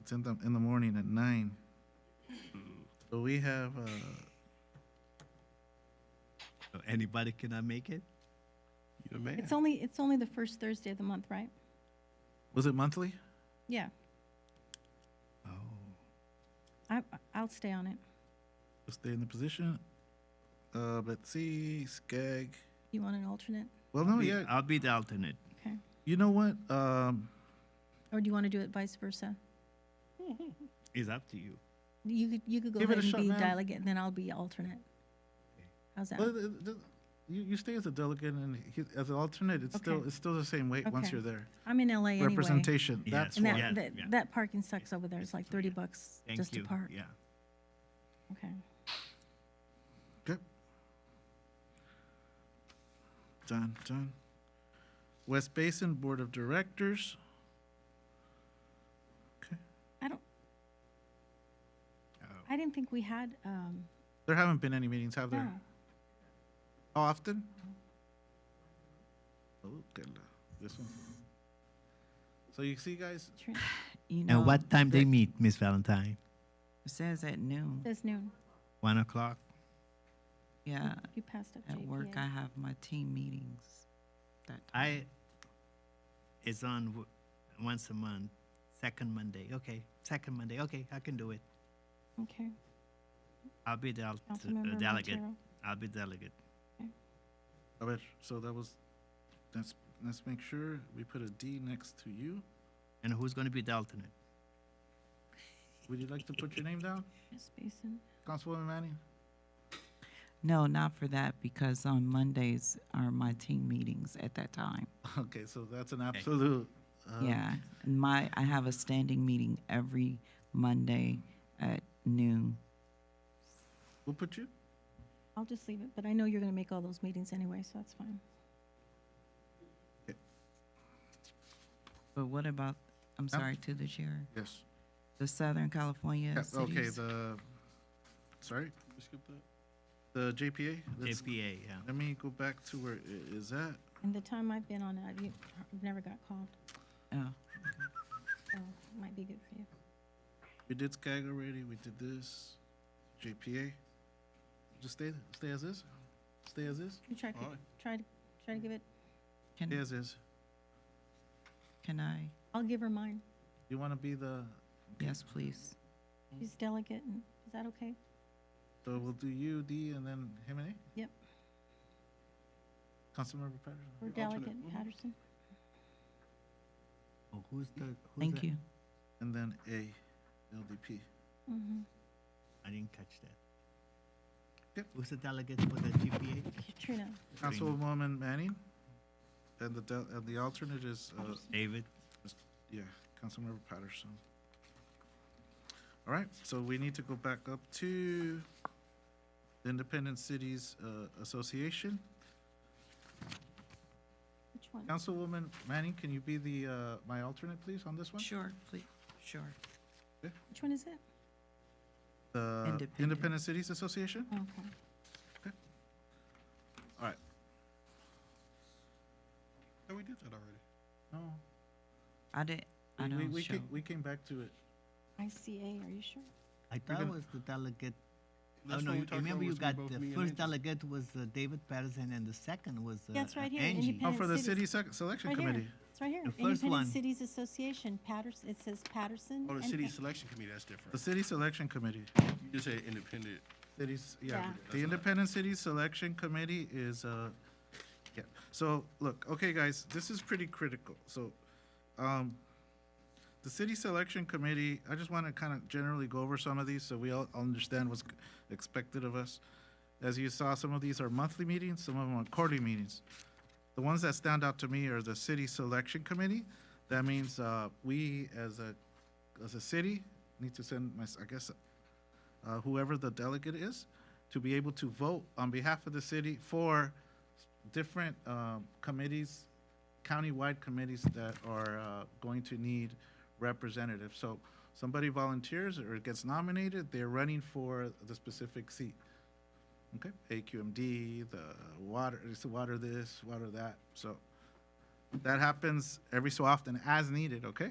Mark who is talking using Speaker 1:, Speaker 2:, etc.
Speaker 1: it's in the, in the morning at nine. So we have, uh,
Speaker 2: So Anybody cannot make it?
Speaker 3: You're the man.
Speaker 4: It's only, it's only the first Thursday of the month, right?
Speaker 1: was it monthly?
Speaker 4: Yeah,
Speaker 2: Oh,
Speaker 4: I, I'll stay on it.
Speaker 1: Stay in the position. Uh, let's see, Skag.
Speaker 4: You want an alternate?
Speaker 1: Well, no,
Speaker 2: Be-
Speaker 1: yeah,
Speaker 2: I'll be the alternate.
Speaker 4: Okay.
Speaker 1: you know what? Um,
Speaker 4: Or do you want to do it vice versa?
Speaker 2: It's up to you.
Speaker 4: You could, you could go
Speaker 1: Give it a
Speaker 4: ahead and
Speaker 1: shot,
Speaker 4: be
Speaker 1: ma'am.
Speaker 4: delegate, and then I'll be alternate. How's that?
Speaker 1: well, th- th- you, you stay as a delegate and he, as an alternate, it's still,
Speaker 4: Okay.
Speaker 1: it's still the same weight once
Speaker 4: Okay.
Speaker 1: you're there.
Speaker 4: I'm in LA anyway.
Speaker 1: Representation,
Speaker 2: Yes.
Speaker 1: that's
Speaker 4: And
Speaker 1: why.
Speaker 2: Yeah,
Speaker 4: that, that,
Speaker 2: yeah.
Speaker 4: that parking sucks over there. It's like thirty bucks
Speaker 2: Thank
Speaker 4: just
Speaker 2: you.
Speaker 4: to park.
Speaker 2: Yeah.
Speaker 4: Okay.
Speaker 1: Okay. Done, done. West Basin Board of Directors. Okay,
Speaker 4: I don't,
Speaker 2: Oh.
Speaker 4: I didn't think we had, um,
Speaker 1: there haven't been any meetings, have
Speaker 4: no.
Speaker 1: there? How often? Oh, good luck. This one. So you see, guys,
Speaker 4: Tr-
Speaker 5: You know,
Speaker 2: And what time they meet, Miss Valentine?
Speaker 5: It says at noon.
Speaker 4: That's noon.
Speaker 2: One o'clock?
Speaker 5: Yeah,
Speaker 4: You passed up
Speaker 5: Uh, at work I
Speaker 4: JPA.
Speaker 5: have my team meetings. That
Speaker 2: I,
Speaker 5: time.
Speaker 2: it's on w- once a month, second Monday. Okay, second Monday. Okay, I can do it.
Speaker 4: Okay.
Speaker 2: I'll be the alt- uh,
Speaker 4: Councilmember
Speaker 2: delegate.
Speaker 4: Montero.
Speaker 2: I'll be delegate.
Speaker 1: a ver, so that was, let's, let's make sure we put a D next to you.
Speaker 2: And who's going to be the alternate?
Speaker 1: Would you like to put your name down,
Speaker 4: Miss Basin.
Speaker 1: Councilwoman Manning?
Speaker 5: No, not for that because on Mondays are my team meetings at that time.
Speaker 1: Okay, so that's an absolute. uh,
Speaker 5: yeah, my I have a standing meeting every Monday at noon.
Speaker 1: We'll put you,
Speaker 4: I'll just leave it, but I know you're gonna make all those meetings anyway, so that's fine.
Speaker 5: But what about? I'm sorry to the chair.
Speaker 1: yes.
Speaker 5: The Southern California.
Speaker 1: Yeah, Okay,
Speaker 5: cities?
Speaker 1: the, sorry? The JPA? Let's-
Speaker 2: JPA, yeah.
Speaker 1: Let me go back to where it is at.
Speaker 4: And the time I've been on it, I've u- I've never got called,
Speaker 5: Oh.
Speaker 4: so it might be good for you.
Speaker 1: We did SCAG already, we did this, JPA. Just stay, stay as is, stay as is,
Speaker 4: You try, to- try, to try to give it,
Speaker 5: Can
Speaker 1: stay as is.
Speaker 5: can I?
Speaker 4: I'll give her mine.
Speaker 1: You want to be the,
Speaker 5: Yes, please.
Speaker 4: She's delegate, and, is that okay?
Speaker 1: so we'll do U, D, and then him and A?
Speaker 4: Yep.
Speaker 1: Councilmember Patterson?
Speaker 4: We're delegate, Patterson.
Speaker 2: Oh, who's the? Who's
Speaker 5: Thank
Speaker 2: the-
Speaker 5: you.
Speaker 1: And then A, LDP.
Speaker 4: Mhm.
Speaker 2: I didn't catch that.
Speaker 1: Yep.
Speaker 2: Who's the delegate for the GPA?
Speaker 4: Katrina,
Speaker 1: Councilwoman Manning? And the, del- and the alternate is, uh,
Speaker 2: David.
Speaker 1: Yeah, Councilmember Patterson. All right, so we need to go back up to the Independent Cities uh, Association.
Speaker 4: which one?
Speaker 1: Councilwoman Manning, can you be the, uh, my alternate, please, on this one?
Speaker 5: Sure, please. Sure.
Speaker 4: Which one is it?
Speaker 1: The
Speaker 5: Independent.
Speaker 1: Independent Cities Association?
Speaker 4: Okay.
Speaker 1: All right,
Speaker 3: Oh, we did that already.
Speaker 1: no,
Speaker 5: I did. I
Speaker 1: we- we,
Speaker 5: don't
Speaker 1: we
Speaker 5: show.
Speaker 1: came, we came back to it.
Speaker 4: ICA, are you sure?
Speaker 2: I thought
Speaker 1: gonna-
Speaker 2: was the delegate. Oh,
Speaker 3: That's
Speaker 2: no,
Speaker 3: when we
Speaker 2: you-
Speaker 3: talked
Speaker 2: remember
Speaker 3: about
Speaker 2: you
Speaker 3: was gonna
Speaker 2: got,
Speaker 3: both
Speaker 2: the
Speaker 3: me and
Speaker 2: first
Speaker 3: Angie.
Speaker 2: delegate was uh, David Patterson and the second was uh,
Speaker 4: That's right here,
Speaker 2: Angie.
Speaker 1: Oh,
Speaker 4: independent-
Speaker 1: for the City
Speaker 4: City-
Speaker 1: Sec- Selection
Speaker 4: Right
Speaker 1: Committee.
Speaker 4: here. It's right here.
Speaker 2: The first one.
Speaker 4: Independent Cities Association, Patterson, it says Patterson.
Speaker 3: Oh, the
Speaker 4: and
Speaker 3: city
Speaker 4: Pa-
Speaker 3: selection committee, that's
Speaker 1: The
Speaker 3: different.
Speaker 1: City Selection Committee.
Speaker 3: You just say independent.
Speaker 1: Cities, yeah.
Speaker 4: Yeah.
Speaker 1: The Independent City Selection Committee is, uh, yeah. So, look, okay, guys, this is pretty critical. So, um, the City Selection Committee, I just want to kind of generally go over some of these so we all understand what's expected of us. As you saw, some of these are monthly meetings, some of them are quarterly meetings. The ones that stand out to me are the City Selection Committee. That means, uh, we as a, as a city need to send my, I guess, uh, whoever the delegate is, to be able to vote on behalf of the city for different um, committees, countywide committees that are uh, going to need representatives. So somebody volunteers or gets nominated, they're running for the specific seat. Okay, AQMD, the water, it's the water this, water that. So that happens every so often as needed, okay?